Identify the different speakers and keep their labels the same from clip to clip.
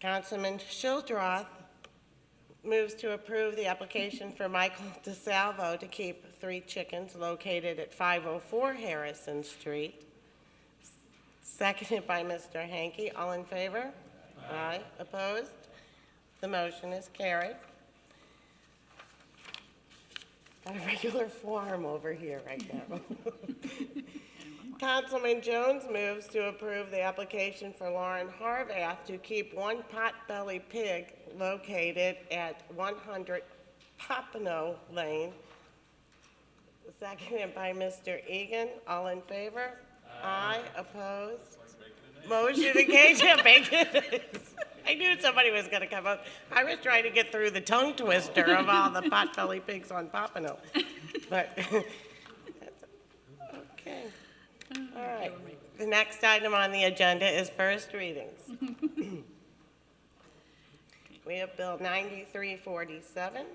Speaker 1: Councilman Shildroth moves to approve the application for Michael DeSalvo to keep three chickens located at 504 Harrison Street. Seconded by Mr. Hanky. All in favor? Aye. Opposed? The motion is carried. Got a regular form over here right now. Councilman Jones moves to approve the application for Lauren Harvath to keep one potbelly pig located at 100 Pompano Lane. Seconded by Mr. Egan. All in favor? Aye. Opposed? Motion to cage it, bacon. I knew somebody was gonna come up. I was trying to get through the tongue twister of all the potbelly pigs on Pompano. But, okay. All right. The next item on the agenda is first readings. We have Bill 9347.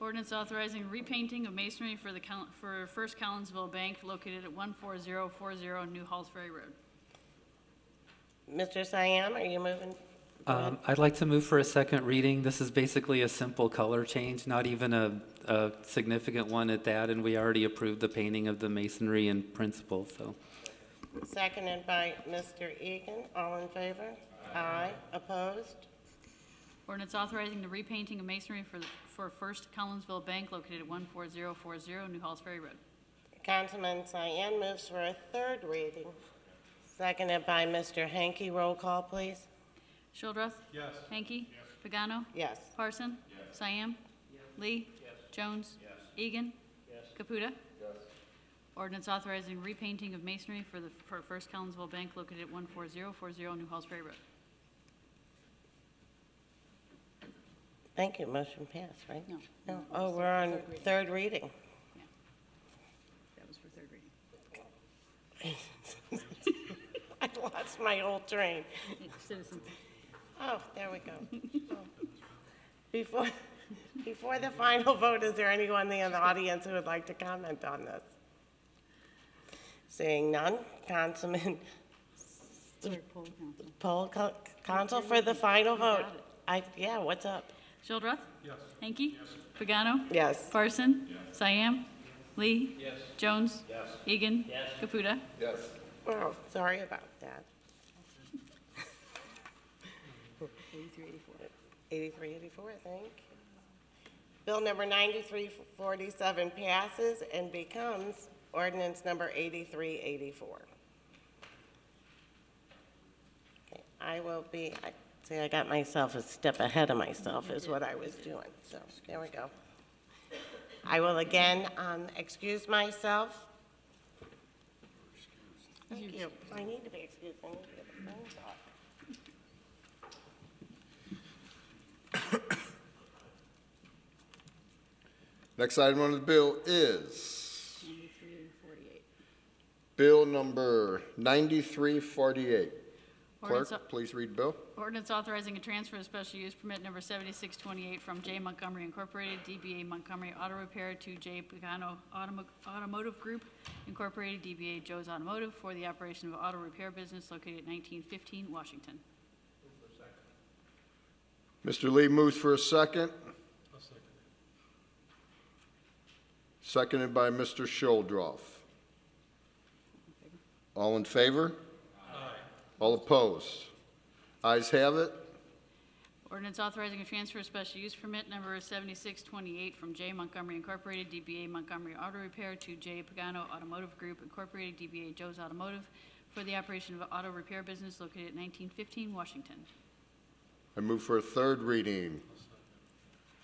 Speaker 2: Ordinance authorizing repainting of masonry for the, Col- for First Collinsville Bank located at 14040 New Halls Ferry Road.
Speaker 1: Mr. Siam, are you moving?
Speaker 3: Um, I'd like to move for a second reading. This is basically a simple color change, not even a, a significant one at that, and we already approved the painting of the masonry in principle, so.
Speaker 1: Seconded by Mr. Egan. All in favor? Aye. Opposed?
Speaker 2: Ordinance authorizing the repainting of masonry for, the- for First Collinsville Bank located at 14040 New Halls Ferry Road.
Speaker 1: Councilman Cyan moves for a third reading. Seconded by Mr. Hanky. Roll call, please.
Speaker 2: Shildroth. Yes. Hanky. Yes. Pagano.
Speaker 1: Yes.
Speaker 2: Parson. Yes. Cyan. Lee. Jones. Egan. Caputa. Ordinance authorizing repainting of masonry for the, for First Collinsville Bank located at 14040 New Halls Ferry Road.
Speaker 1: Thank you. Motion passed, right?
Speaker 2: No.
Speaker 1: No. Oh, we're on third reading.
Speaker 2: That was for third reading.
Speaker 1: I lost my whole train.
Speaker 2: Citizen.
Speaker 1: Oh, there we go. Oh. Before, before the final vote, is there anyone in the audience who would like to comment on this? Seeing none, Councilman Poll, Council for the final vote. I, yeah, what's up?
Speaker 2: Shildroth. Yes. Hanky. Pagano.
Speaker 1: Yes.
Speaker 2: Parson. Yes. Cyan. Lee. Yes. Jones. Yes. Egan. Yes. Caputa.
Speaker 1: Oh, sorry about that. 8384. 8384, thank you. Bill number 9347 passes and becomes ordinance number 8384. Okay, I will be, I see, I got myself a step ahead of myself is what I was doing, so there we go. I will again um, excuse myself Thank you. I need to be excused, I need to get the phone off.
Speaker 4: Next item on the bill is Bill number 9348.
Speaker 2: Ordinance au-
Speaker 4: Clerk, please read bill.
Speaker 2: Ordinance authorizing a transfer of special use permit number 7628 from J Montgomery Incorporated, DBA Montgomery Auto Repair to J Pagano Automo- Automotive Group Incorporated, DBA Joe's Automotive, for the operation of auto repair business located at 1915 Washington.
Speaker 4: Mr. Lee moves for a second. Seconded by Mr. Shuldroff. All in favor? All opposed? Ayes have it.
Speaker 2: Ordinance authorizing a transfer of special use permit number 7628 from J Montgomery Incorporated, DBA Montgomery Auto Repair to J Pagano Automotive Group Incorporated, DBA Joe's Automotive, for the operation of auto repair business located at 1915 Washington.
Speaker 4: I move for a third reading.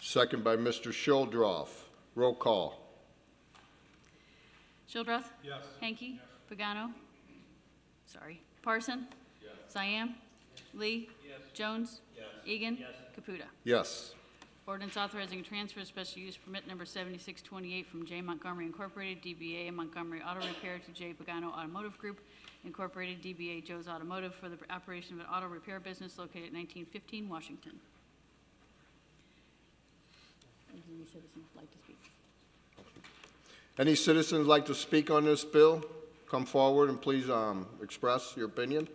Speaker 4: Second by Mr. Shuldroff. Roll call.
Speaker 2: Shildroth. Yes. Hanky. Pagano. Sorry. Parson. Yes. Cyan. Lee. Yes. Jones. Yes. Egan. Yes. Caputa.
Speaker 4: Yes.
Speaker 2: Ordinance authorizing transfer of special use permit number 7628 from J Montgomery Incorporated, DBA Montgomery Auto Repair to J Pagano Automotive Group Incorporated, DBA Joe's Automotive for the operation of an auto repair business located at 1915 Washington. Does any citizen like to speak?
Speaker 4: Any citizens like to speak on this bill? Come forward and please um, express your opinion.